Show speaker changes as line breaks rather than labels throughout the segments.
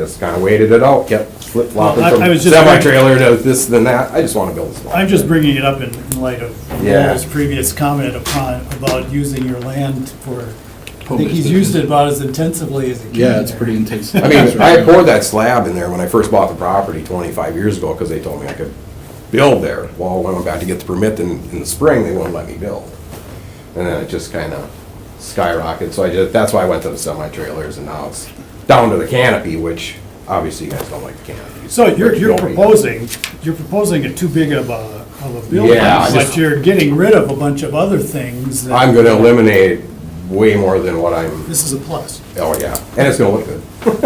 Just kind of waited it out, kept flip flopping
Well, I- I
from
was just-
semi-trailer to this and that. I just want to build this lot.
I'm just bringing it up in in light of
Yeah.
Lowell's previous comment upon, about using your land for, I think he's used it about as intensively as he can.
Yeah, it's
there.
pretty intense.
I mean, I poured that slab in there when I first bought the property twenty-five years ago because they told me I could build there. Well, when I went back to get the permit in, in the spring, they wouldn't let me build. And then it just kind of skyrocketed. So I just, that's why I went to the semi-trailers and now it's down to the canopy, which obviously you guys don't like the canopy.
So you're,
Which
you're
don't be-
proposing, you're proposing a too big of a, of a building,
Yeah, I
but
just-
you're getting rid of a bunch of other things. that-
I'm going to eliminate way more than what I'm,
This is a plus.
oh yeah, and it's going to look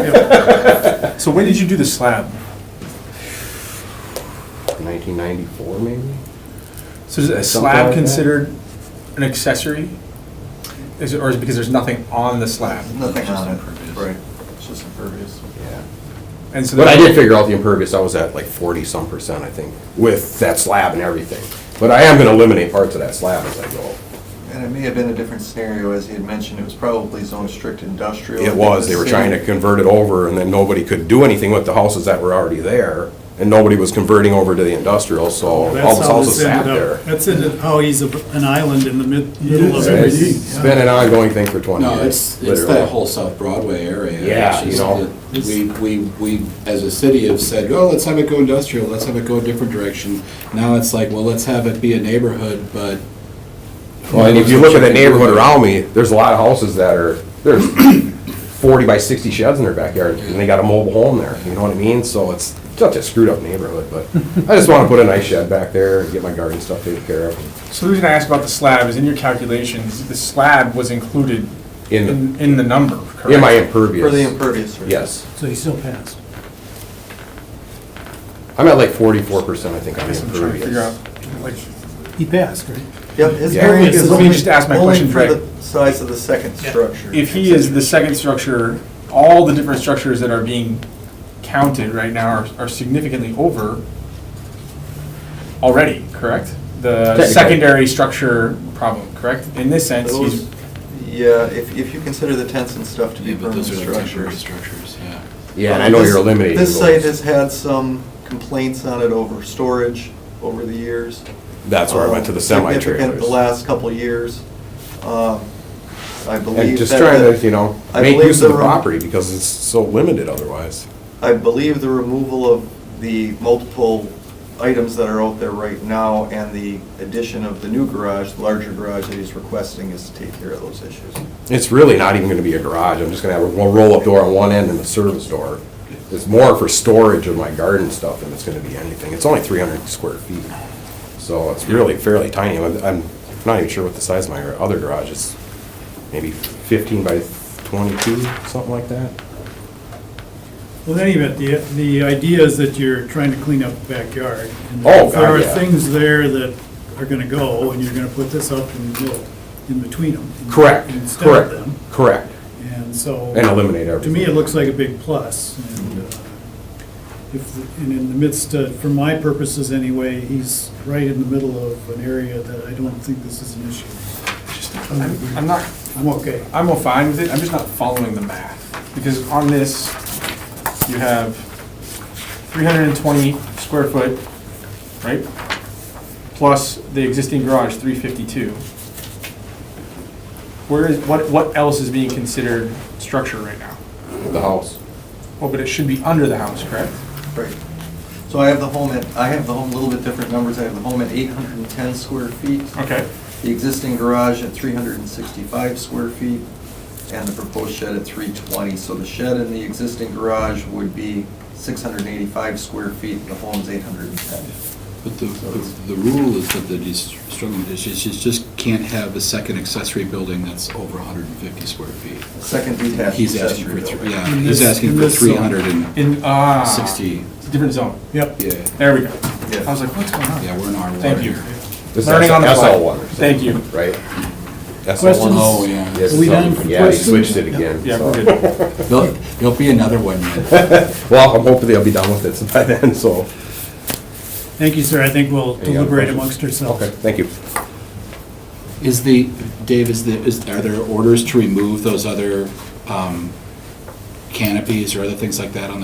good.
So when did you do the slab?
1994 maybe?
So is a
like
slab
that.
considered an accessory? Is it, or is it because there's nothing on the slab?
Nothing on it. Right. It's just impervious.
Yeah.
And so
But I
there-
did figure out the impervious, I was at like 40-some percent, I think, with that slab and everything. But I am going to eliminate parts of that slab as I go.
And it may have been a different scenario, as he had mentioned, it was probably zone strict industrial.
It was, they were trying to convert it over, and then nobody could do anything with the houses that were already there, and nobody was converting over to the industrial, so all
That's
those
how
houses
this
Oh, sat
ended up.
there.
That's ended- how he's a- an island in the mid, middle of
is.
everything.
It's been an ongoing thing for 20 years.
No, it's, it's
literally.
that whole South Broadway area.
Yeah,
It's
you
just
know.
that We, we, we, as a city have said, oh, let's have it go industrial, let's have it go a different direction. Now it's like, well, let's have it be a neighborhood, but.
Well, and if you look at the neighborhood around me, there's a lot of houses that are, there's forty by sixty sheds in their backyard, and they got a mobile home there, you know what I mean? So it's such a screwed up neighborhood, but I just wanna put a nice shed back there and get my garden stuff taken care of.
So the reason I asked about the slab is in your calculations, the slab was included
In the-
in, in the number, correct?
Am I
For the
impervious?
impervious. surface.
Yes,
So he still passed.
I'm at like forty-four percent, I think, on
I
the
guess I'm trying to figure out,
impervious.
like,
He passed, right?
Yep. his
Yeah.
variance is
Let me
only-
just ask my
only
question,
for
Greg.
the Size of the second structure.
if he is the second structure, all the different structures that are being counted right now are, are significantly over already, correct? The
Technically.
secondary structure problem, correct? In this sense, he's,
Those- Yeah, if, if you consider the tents and stuff to be
Yeah, but
permanent
those are the temporary
structures.
structures, yeah.
Yeah, and I know
This-
you're eliminating
This site
those.
has had some complaints on it over storage over the years.
That's where I went to the
Um, significant
semi-trailers.
The last couple of years. Um, I believe
And just
that
trying
the-
to, you know,
I
make
believe
use of the
the room-
property, because it's so limited otherwise.
I believe the removal of the multiple items that are out there right now and the addition of the new garage, the larger garage that he's requesting is to take care of those issues.
It's really not even gonna be a garage, I'm just gonna have a ro- roll-up door on one end and a service door. It's more for storage of my garden stuff than it's gonna be anything, it's only three hundred square feet. So it's really fairly tiny, I'm, I'm not even sure what the size of my other garage is, maybe fifteen by twenty-two, something like that.
Well, in any event, the, the idea is that you're trying to clean up the backyard. and
Oh,
If there
God,
are
yeah.
things there that are gonna go, and you're gonna put this up and build in between them.
Correct,
Instead of
correct,
them,
correct,
and so.
and eliminate
To
everything.
me, it looks like a big plus, and uh, if, and in the midst, uh, for my purposes anyway, he's right in the middle of an area that I don't think this is an issue.
I'm I'm not,
I'm okay.
I'm all fine with it, I'm just not following the math. Because on this, you have 320 square foot, right? Plus the existing garage, 352. Where is, what, what else is being considered structure right now?
The house,
Well, but it should be under the house, correct?
Right. So I have the home at, I have the home, a little bit different numbers. I have the home at 810 square feet,
Okay.
the existing garage at 365 square feet, and the proposed shed at 320. So the shed and the existing garage would be 685 square feet, and the home's 810.
But the, the the rule is that the dis- struggling, is just, you just can't have a second accessory building that's over hundred and fifty square feet.
Second detached
He's asking
accessory
for, thr-
building.
yeah,
In
he's
this-
Uh, asking
in
for
this zone.
three hundred and
In, ah.
sixty,
It's a different zone.
Yep.
yeah,
There we go.
Yeah.
I was like, what's going on?
yeah, we're in our water
Thank you.
here.
this is
Learning on the fly.
SL one,
Thank you.
right?
Questions?
Oh, yeah.
Yes,
Are we done for
yeah, he
questions?
switched it again.
Yeah,
so.
we're good.
There'll, there'll be another one yet.
Well, I'm hoping they'll be done with it by then, so.
Thank you, sir. I think we'll
Any other
deliberate
questions?
amongst ourselves.
Okay, thank you.
Is the, Dave, is the, is, are there orders to remove those other, um, canopies or other things like that on the